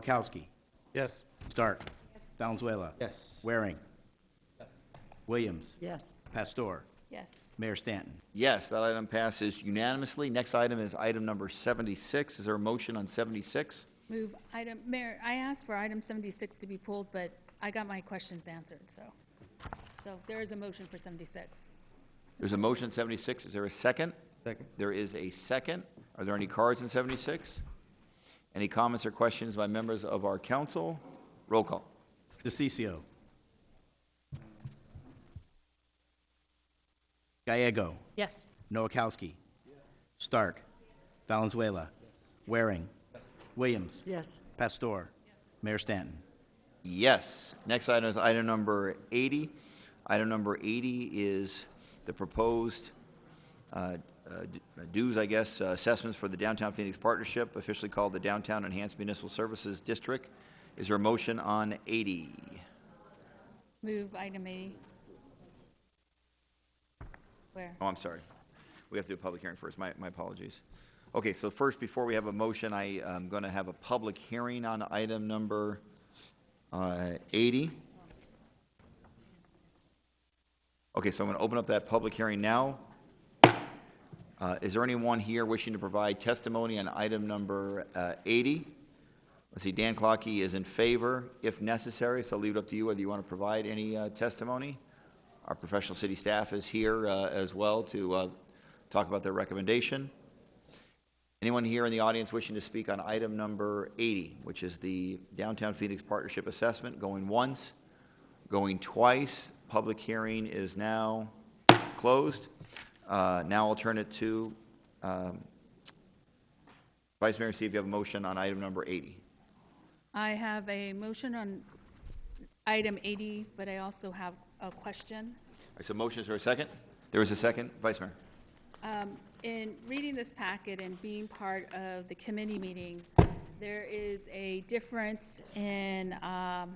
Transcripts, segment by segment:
Noakowski. Yes. Stark. Valenzuela. Yes. Waring. Williams. Yes. Pastor. Yes. Mayor Stanton. Yes, that item passes unanimously. Next item is item number 76. Is there a motion on 76? Move item, Mayor, I asked for item 76 to be pulled, but I got my questions answered, so. So there is a motion for 76. There's a motion on 76. Is there a second? Second. There is a second. Are there any cards in 76? Any comments or questions by members of our council? Roll call. DeCiccio. Gallego. Yes. Noakowski. Stark. Valenzuela. Waring. Williams. Yes. Pastor. Mayor Stanton. Yes. Next item is item number 80. Item number 80 is the proposed uh, uh, d- dues, I guess, uh, assessments for the Downtown Phoenix Partnership, officially called the Downtown Enhanced Municipal Services District. Is there a motion on 80? Move item 80. Where? Oh, I'm sorry. We have to do a public hearing first. My my apologies. Okay, so first, before we have a motion, I am going to have a public hearing on item number uh, 80. Okay, so I'm going to open up that public hearing now. Uh, Is there anyone here wishing to provide testimony on item number uh, 80? Let's see, Dan Clocky is in favor, if necessary, so I'll leave it up to you whether you want to provide any uh, testimony. Our professional city staff is here uh, as well to uh, talk about their recommendation. Anyone here in the audience wishing to speak on item number 80, which is the Downtown Phoenix Partnership Assessment, going once, going twice. Public hearing is now closed. Uh, Now I'll turn it to um, Vice Mayor, see if you have a motion on item number 80. I have a motion on item 80, but I also have a question. All right, So motions are a second? There is a second, Vice Mayor? Um, In reading this packet and being part of the committee meetings, there is a difference in um,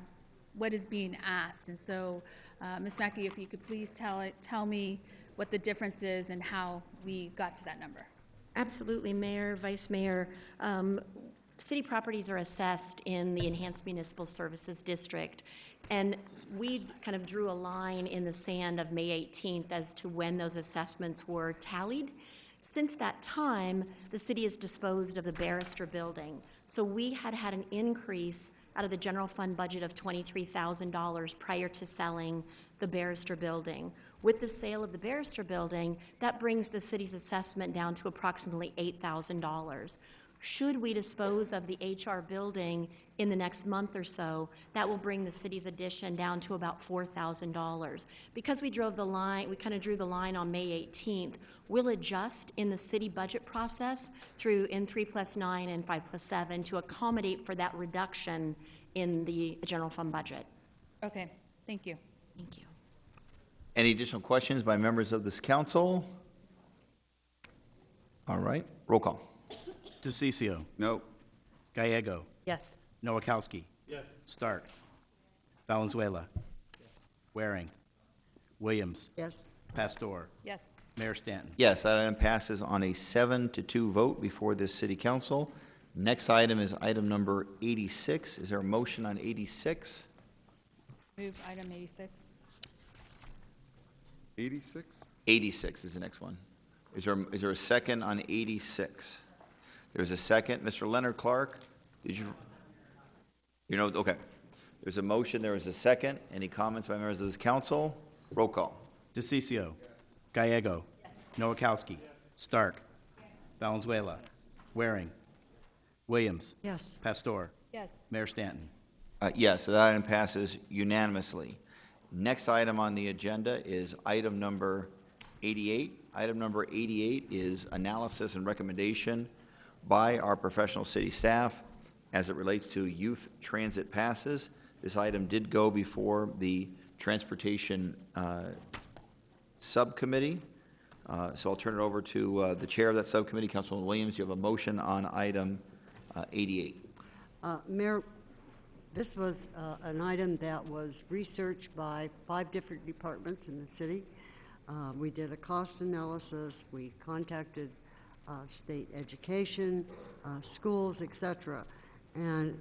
what is being asked. And so, uh, Ms. Mackey, if you could please tell, it- tell me what the difference is and how we got to that number. Absolutely, Mayor, Vice Mayor. Um, City properties are assessed in the Enhanced Municipal Services District, and we kind of drew a line in the sand of May 18th as to when those assessments were tallied. Since that time, the city has disposed of the Barrister Building. So we had had an increase out of the general fund budget of $23,000 prior to selling the Barrister Building. With the sale of the Barrister Building, that brings the city's assessment down to approximately $8,000. Should we dispose of the HR building in the next month or so, that will bring the city's addition down to about $4,000. Because we drove the line, we kind of drew the line on May 18th, we'll adjust in the city budget process through N3 plus 9 and 5 plus 7 to accommodate for that reduction in the general fund budget. Okay, thank you. Thank you. Any additional questions by members of this council? All right, roll call. DeCiccio. No. Gallego. Yes. Noakowski. Yes. Stark. Valenzuela. Waring. Williams. Yes. Pastor. Yes. Mayor Stanton. Yes, that item passes on a seven to two vote before this city council. Next item is item number 86. Is there a motion on 86? Move item 86. 86? 86 is the next one. Is there, is there a second on 86? There's a second. Mr. Leonard Clark, did you, you know, okay. There's a motion, there is a second. Any comments by members of this council? Roll call. DeCiccio. Gallego. Noakowski. Stark. Valenzuela. Waring. Williams. Yes. Pastor. Yes. Mayor Stanton. Uh, Yes, so that item passes unanimously. Next item on the agenda is item number 88. Item number 88 is analysis and recommendation by our professional city staff as it relates to youth transit passes. This item did go before the Transportation uh, Subcommittee, Uh, so I'll turn it over to uh, the chair of that subcommittee, Councilman Williams. You have a motion on item uh, 88. Uh, Mayor, this was uh, an item that was researched by five different departments in the city. Uh, We did a cost analysis, we contacted uh, state education, uh, schools, et cetera. And